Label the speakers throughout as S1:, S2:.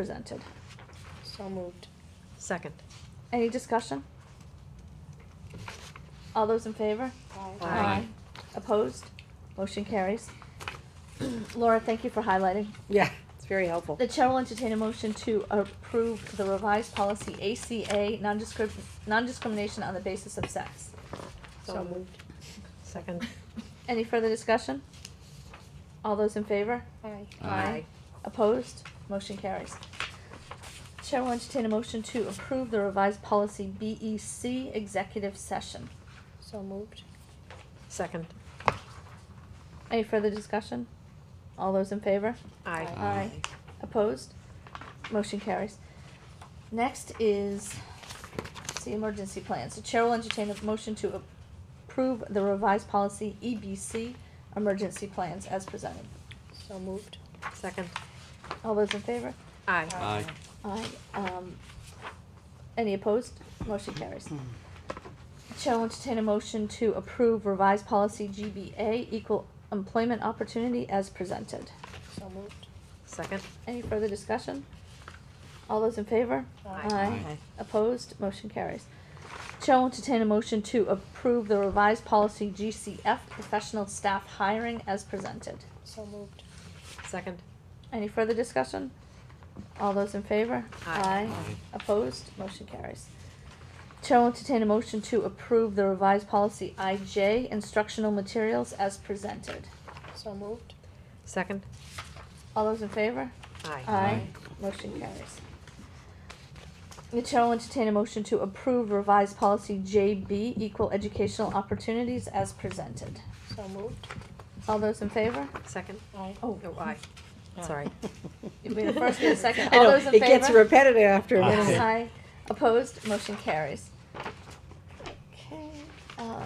S1: presented.
S2: So moved.
S3: Second.
S1: Any discussion? All those in favor?
S3: Aye.
S1: Opposed? Motion carries. Laura, thank you for highlighting.
S3: Yeah, it's very helpful.
S1: The chair will entertain a motion to approve the revised policy ACA, nondiscrim- non-discrimination on the basis of sex.
S2: So moved.
S3: Second.
S1: Any further discussion? All those in favor?
S2: Aye.
S1: Aye. Opposed? Motion carries. Chair will entertain a motion to approve the revised policy BEC, executive session.
S2: So moved.
S3: Second.
S1: Any further discussion? All those in favor?
S3: Aye.
S2: Aye.
S1: Aye. Opposed? Motion carries. Next is the emergency plans. The chair will entertain a motion to approve the revised policy EBC, emergency plans as presented.
S2: So moved.
S3: Second.
S1: All those in favor?
S3: Aye.
S4: Aye.
S1: Aye. Um, any opposed? Motion carries. Chair will entertain a motion to approve revised policy GBA, equal employment opportunity as presented.
S2: So moved.
S3: Second.
S1: Any further discussion? All those in favor?
S2: Aye.
S4: Aye.
S1: Opposed? Motion carries. Chair will entertain a motion to approve the revised policy GCF, professional staff hiring as presented.
S2: So moved.
S3: Second.
S1: Any further discussion? All those in favor?
S3: Aye.
S4: Aye.
S1: Opposed? Motion carries. Chair will entertain a motion to approve the revised policy IJ, instructional materials as presented.
S2: So moved.
S3: Second.
S1: All those in favor?
S3: Aye.
S1: Aye. Motion carries. The chair will entertain a motion to approve revised policy JB, equal educational opportunities as presented.
S2: So moved.
S1: All those in favor?
S3: Second.
S2: Aye.
S1: Oh,
S3: Oh, aye. Sorry.
S1: you made a first and a second.
S3: I
S1: All
S3: know,
S1: those in
S3: It gets
S1: favor?
S3: repetitive
S5: Uh,
S3: after a
S4: Aye.
S3: minute.
S1: Aye. Opposed? Motion carries. Okay, um,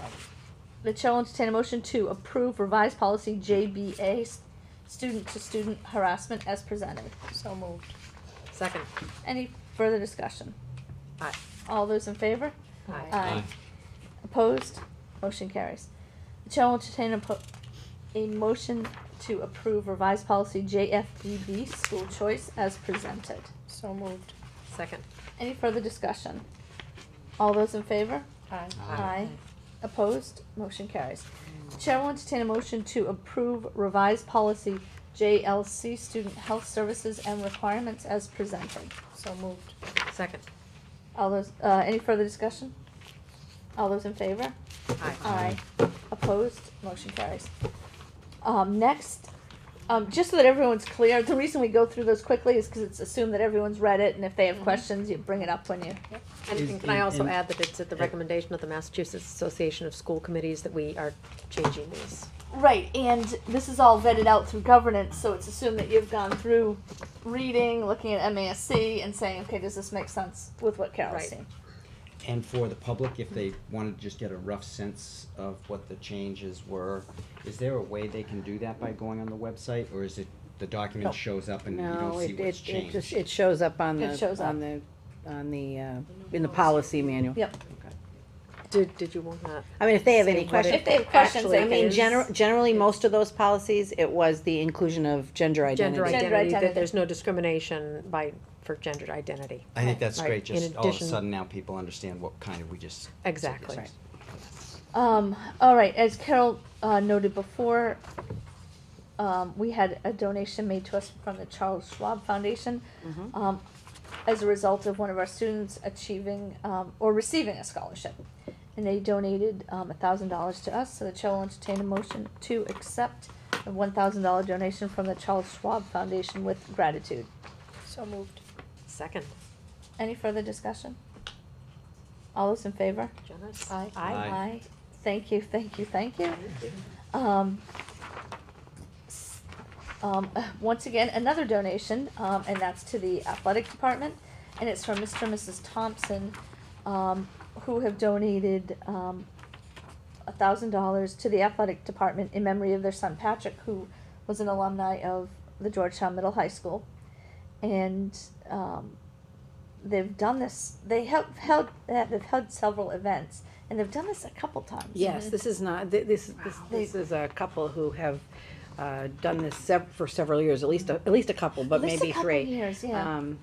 S1: the chair will entertain a motion to approve revised policy JBA, s- student-to-student harassment as presented.
S2: So moved.
S3: Second.
S1: Any further discussion?
S3: Aye.
S1: All those in favor?
S3: Aye.
S1: Aye. Opposed? Motion carries. The chair will entertain a po- a motion to approve revised policy JFBB, school choice, as presented.
S2: So moved.
S3: Second.
S1: Any further discussion? All those in favor?
S2: Aye.
S1: Aye. Opposed? Motion carries. The chair will entertain a motion to approve revised policy JLC, student health services and requirements, as presented.
S2: So moved.
S3: Second.
S1: All those, uh, any further discussion? All those in favor?
S3: Aye.
S1: Aye. Opposed? Motion carries. Um, next, um, just so that everyone's clear, the reason we go through those quickly is because it's assumed that everyone's read it, and if they have questions, you bring it up when you.
S3: And-
S5: Is-
S3: And can I also
S5: and-
S3: add that it's at the
S5: Eh.
S3: recommendation of the Massachusetts Association of School Committees that we are changing these?
S1: Right, and this is all vetted out through governance, so it's assumed that you've gone through reading, looking at MASC, and saying, okay, does this make sense with what Carol's
S3: Right.
S1: saying?
S5: And for the public, if they wanted to just get a rough sense of what the changes were, is there a way they can do that by going on the website, or is it, the document shows up and you
S6: No,
S5: don't see
S6: it,
S5: what's
S6: it, it
S5: changed?
S6: just, it shows up on
S1: It shows
S6: the,
S1: up.
S6: on the, on the, uh, in the policy manual.
S1: Yep.
S3: Did, did you want that?
S6: I mean, if they have any
S3: Same what it-
S6: questions.
S1: If they have questions, they
S6: I mean,
S1: can-
S6: gener- generally, most of those policies, it was the inclusion of gender
S3: Gender
S6: identity.
S3: identity,
S1: identity.
S3: that there's no discrimination by, for gender identity.
S5: I think that's
S3: Right,
S5: great,
S3: in
S5: just all of a
S3: addition-
S5: sudden now people understand what kind of we just. said yes
S3: Exactly.
S5: is.
S1: Um, all right, as Carol uh, noted before, um, we had a donation made to us from the Charles Schwab Foundation um, as a result of one of our students achieving um, or receiving a scholarship. And they donated um, $1,000 to us, so the chair will entertain a motion to accept the $1,000 donation from the Charles Schwab Foundation with gratitude.
S2: So moved.
S3: Second.
S1: Any further discussion? All those in favor?
S3: Janice?
S1: Aye.
S3: Aye.
S1: Aye. Thank you, thank you, thank you.
S3: Thank you.
S1: Um, s- um, once again, another donation, um, and that's to the athletic department, and it's from Mr. and Mrs. Thompson, um, who have donated, um, a thousand dollars to the athletic department in memory of their son Patrick, who was an alumni of the Georgetown Middle High School. And, um, they've done this, they have held, they've held several events, and they've done this a couple times.
S6: Yes, this is not, thi- this, this, this is a couple who have, uh, done this sev- for several years, at least, a- at least a couple, but
S1: At least a
S6: maybe
S1: couple
S6: three.
S1: years, yeah.
S6: Um,